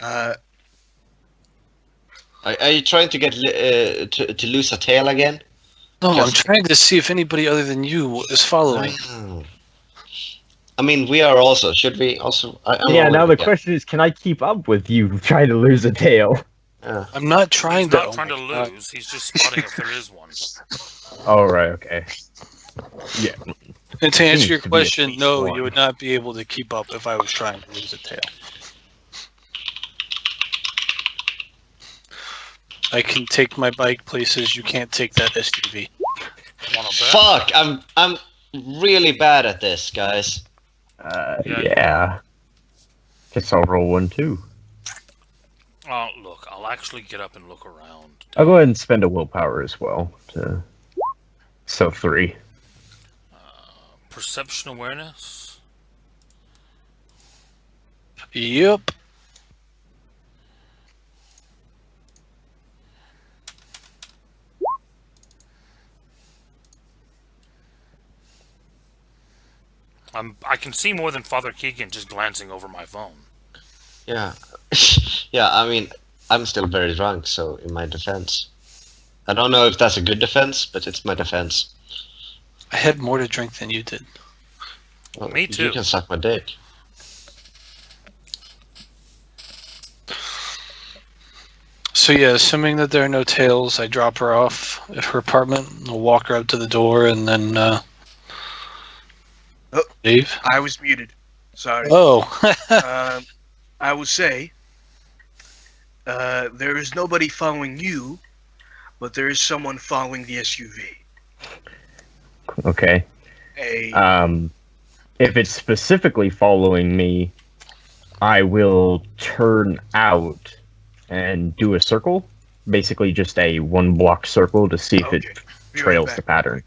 Uh, Are, are you trying to get li- uh, to, to lose a tail again? No, I'm Yes. trying to see if anybody other than you is following. Oh. I mean, we are also. Should we also? I, I'm yeah, all now the with you. question is, can I keep up with you trying to lose a tail? Yeah. I'm not trying He's to. not oh trying to my God. lose. He's just spotting if there is one. Oh, right, okay. And to Continues answer your to be a question, no, one. you would not be able to keep up if I was trying to lose a tail. I can take my bike places. You can't take that SUV. Wanna bet? Fuck! I'm I'm really bad at this, guys. Uh, Yeah. yeah. Guess I'll roll one too. Oh, look, I'll actually get up and look around. I'll go ahead and spend a willpower as well. To... So three. Perception awareness. Yep. I'm. I can see more than Father Keegan just glancing over my phone. Yeah, yeah. I mean, I'm still very drunk, so in my defense, I don't know if that's a good defense, but it's my defense. I had more to drink than you did. Well, Me You too. can suck my dick. So yeah, assuming that there are no tails, I drop her off at her apartment. and I'll walk her up to the door and then uh, Oh. leave. I was muted. Sorry. Oh, Um, I will say, uh, there is nobody following you, but there is someone following the SUV. Okay. A Um, if it's specifically following me, I will turn out and do a circle, basically just a one block circle to see if Okay. it Be right trails back. the pattern.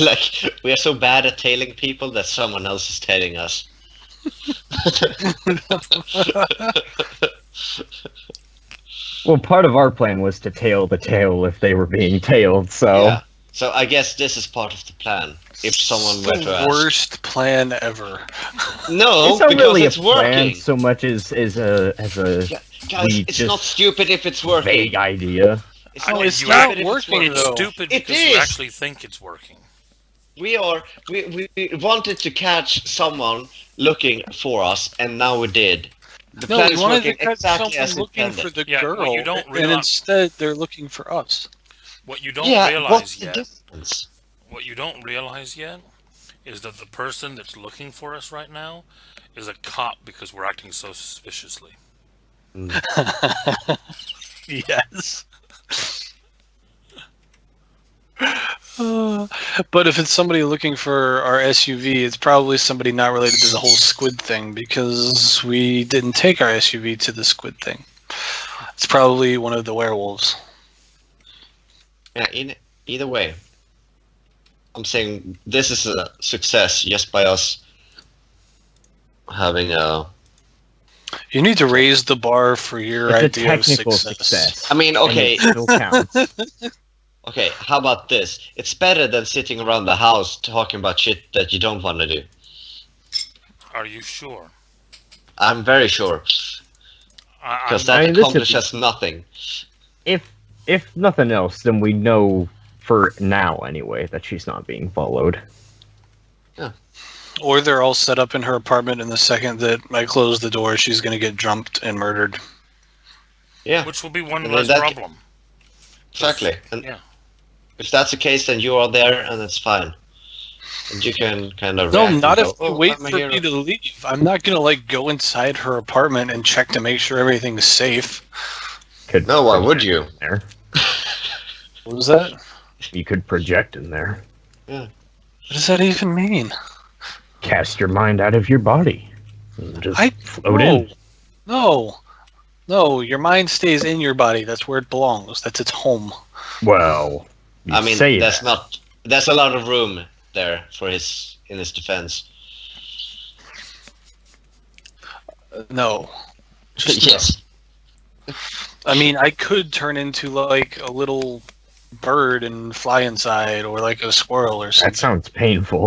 like we are so bad at tailing people that someone else is tailing us. Well, part of our plan was to tail the tail if they were being tailed, so Yeah. So I guess this is part of the plan. If someone were to the ask. worst plan ever. No, it's not because really it's a plan working. so much as as a as a Yeah, Guys, we it's just- not stupid if it's working. vague idea. It's I not think stupid you have- if it's It's working. It's Though. stupid It because you is. actually think it's working. We are. We, we- we wanted to catch someone looking for us, and now we did. The No, plan we is wanted working to catch exactly someone as looking intended. for the Yeah, girl, well, you don't and realize- instead they're looking for us. What you don't yeah, what's realize the yet, difference? what you don't realize yet, is that the person that's looking for us right now is a cop because we're acting so suspiciously. Yes. Uh, but if it's somebody looking for our SUV, it's probably somebody not related to the whole squid thing because we didn't take our SUV to the squid thing. It's probably one of the werewolves. Yeah, in, either way, I'm saying this is a success just by us having a. You need to raise the bar for your It's a idea of technical success. success. I mean, and okay, it still counts. okay. How about this? It's better than sitting around the house talking about shit that you don't want to do. Are you sure? I'm very sure, I, I'm, because that I mean, this is- accomplishes nothing. if if nothing else, then we know for now anyway that she's not being followed. Or they're all set up in her apartment, and the second that I close the door, she's going to get jumped and murdered. Yeah, which will be one Well, less that- problem. exactly. And Yeah. If that's the case, then you are there, and it's fine. And you can kind of No, react not and if go, you "Oh, wait I'm a for hero." me to leave. I'm not gonna like go inside her apartment and check to make sure everything's safe. Could No, why project would you? in There, What was that? What you could project in there. does that even mean? Cast your mind out of your body. and Just I- float no. in. No. No, your mind stays in your body. That's where it belongs. That's its home. Well, you I mean, say that's that. not. There's a lot of room there for his in his defense. Uh, No. Just no. yes. I mean, I could turn into like a little bird and fly inside or like a squirrel or something. That sounds painful.